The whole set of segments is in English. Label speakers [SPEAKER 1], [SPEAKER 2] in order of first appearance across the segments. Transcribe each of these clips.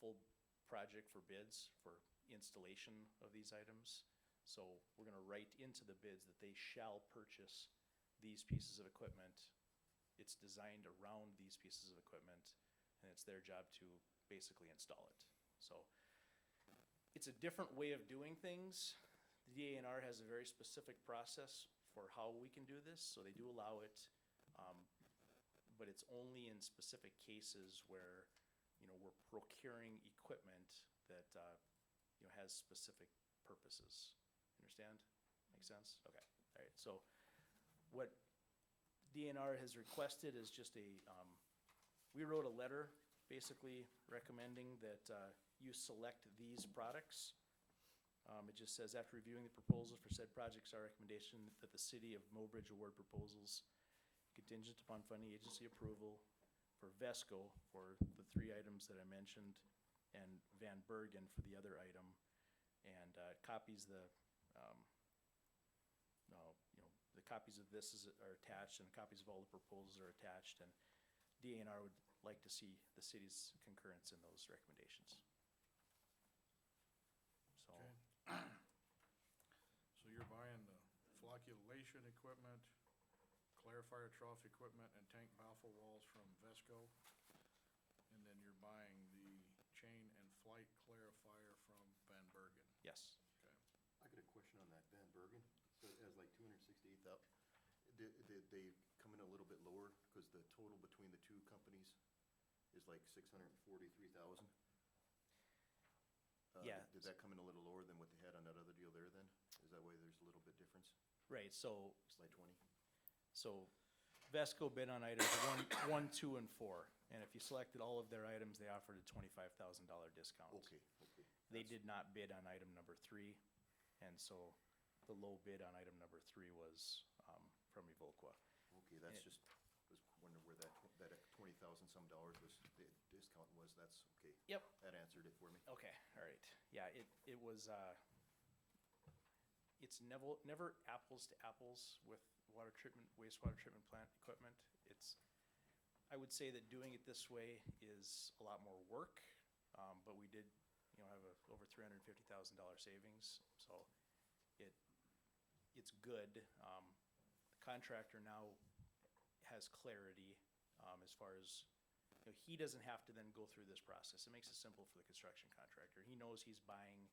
[SPEAKER 1] full project for bids for installation of these items. So we're gonna write into the bids that they shall purchase these pieces of equipment. It's designed around these pieces of equipment, and it's their job to basically install it. So it's a different way of doing things. The DANR has a very specific process for how we can do this, so they do allow it. um, But it's only in specific cases where, you know, we're procuring equipment that, uh, you know, has specific purposes. Understand? Make sense? Okay, all right. So what DNR has requested is just a, um, we wrote a letter basically recommending that, uh, you select these products. Um, it just says, after reviewing the proposals for said projects, our recommendation that the city of Mobridge award proposals contingent upon funding agency approval for Vesco for the three items that I mentioned and Van Bergen for the other item. And, uh, copies the, um, no, you know, the copies of this is, are attached and copies of all the proposals are attached and DNR would like to see the city's concurrence in those recommendations. So,
[SPEAKER 2] Okay. So you're buying the flocculation equipment, clarifier trough equipment, and tank baffle walls from Vesco. And then you're buying the chain and flight clarifier from Van Bergen.
[SPEAKER 1] yes,
[SPEAKER 2] Okay.
[SPEAKER 3] I got a question on that Van Bergen, so it has like two hundred sixty-eighth up. Did, did they come in a little bit lower, because the total between the two companies is like six hundred and forty-three thousand? Uh,
[SPEAKER 1] Yeah.
[SPEAKER 3] Did that come in a little lower than what they had on that other deal there then? Is that why there's a little bit difference,
[SPEAKER 1] right, so
[SPEAKER 3] slide twenty?
[SPEAKER 1] So Vesco bid on items one, one, two, and four. And if you selected all of their items, they offered a twenty-five thousand dollar discount.
[SPEAKER 3] Okay, okay.
[SPEAKER 1] They did not bid on item number three, and so the low bid on item number three was, um, from Evolqua.
[SPEAKER 3] Okay, that's
[SPEAKER 1] Yeah.
[SPEAKER 3] just, was wondering where that, tw- that twenty thousand some dollars was, the discount was, that's, okay.
[SPEAKER 1] Yep.
[SPEAKER 3] That answered it for me.
[SPEAKER 1] Okay, all right. Yeah, it, it was, uh, it's never, never apples to apples with water treatment, wastewater treatment plant equipment. It's, I would say that doing it this way is a lot more work, um, but we did, you know, have a, over three hundred and fifty thousand dollar savings, so it, it's good. Um, the contractor now has clarity, um, as far as, you know, he doesn't have to then go through this process. It makes it simple for the construction contractor. He knows he's buying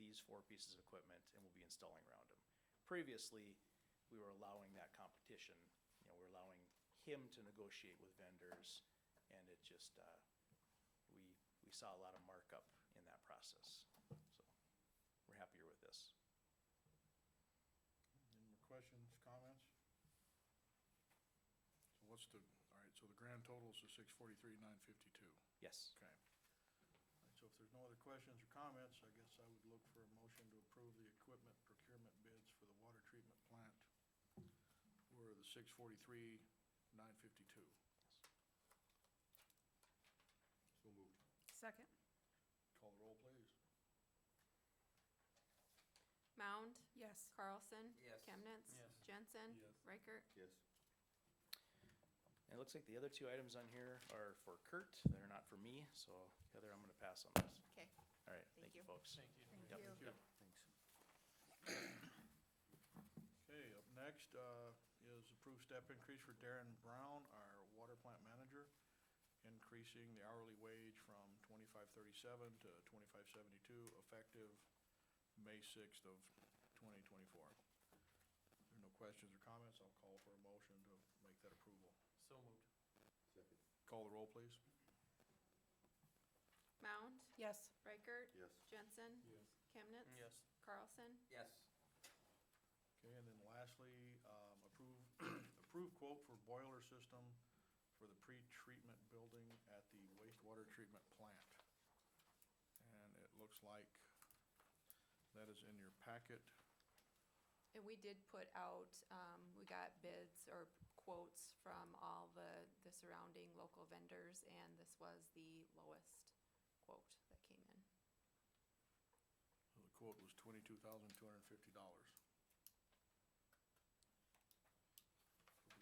[SPEAKER 1] these four pieces of equipment and will be installing around them. Previously, we were allowing that competition, you know, we're allowing him to negotiate with vendors, and it just, uh, we, we saw a lot of markup in that process, so we're happier with this.
[SPEAKER 2] Any more questions, comments? So what's the, all right, so the grand total is the six forty-three, nine fifty-two.
[SPEAKER 1] Yes,
[SPEAKER 2] Okay. All right, So if there's no other questions or comments, I guess I would look for a motion to approve the equipment procurement bids for the water treatment plant or the six forty-three, nine fifty-two.
[SPEAKER 3] So moved.
[SPEAKER 4] Second.
[SPEAKER 2] Call the roll, please.
[SPEAKER 5] Mound.
[SPEAKER 4] Yes.
[SPEAKER 5] Carlson.
[SPEAKER 6] Yes.
[SPEAKER 5] Chemnitz. Jensen.
[SPEAKER 2] Yes.
[SPEAKER 5] Reichert.
[SPEAKER 3] Yes.
[SPEAKER 1] and it looks like the other two items on here are for Kurt, they're not for me, so Heather, I'm gonna pass on this.
[SPEAKER 5] Okay.
[SPEAKER 1] All right, thank you,
[SPEAKER 5] you.
[SPEAKER 1] folks. Thank you.
[SPEAKER 4] Thank you.
[SPEAKER 3] Thanks.
[SPEAKER 2] Okay, up next, uh, is approved step increase for Darren Brown, our water plant manager, increasing the hourly wage from twenty-five thirty-seven to twenty-five seventy-two, effective May sixth of twenty twenty-four. If there are no questions or comments, I'll call for a motion to make that approval.
[SPEAKER 6] So moved.
[SPEAKER 3] Second.
[SPEAKER 2] Call the roll, please.
[SPEAKER 5] Mound.
[SPEAKER 4] Yes.
[SPEAKER 5] Reichert.
[SPEAKER 3] Yes.
[SPEAKER 5] Jensen. Chemnitz.
[SPEAKER 6] Yes.
[SPEAKER 5] Carlson.
[SPEAKER 6] Yes.
[SPEAKER 2] Okay, and then lastly, um, approve, approve quote for boiler system for the pre-treatment building at the wastewater treatment plant. And it looks like that is in your packet.
[SPEAKER 5] And we did put out, um, we got bids or quotes from all the, the surrounding local vendors, and this was the lowest quote that came in.
[SPEAKER 2] So The quote was twenty-two thousand, two hundred and fifty dollars.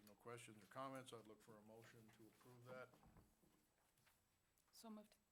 [SPEAKER 2] No questions or comments, I'd look for a motion to approve that.
[SPEAKER 4] So moved.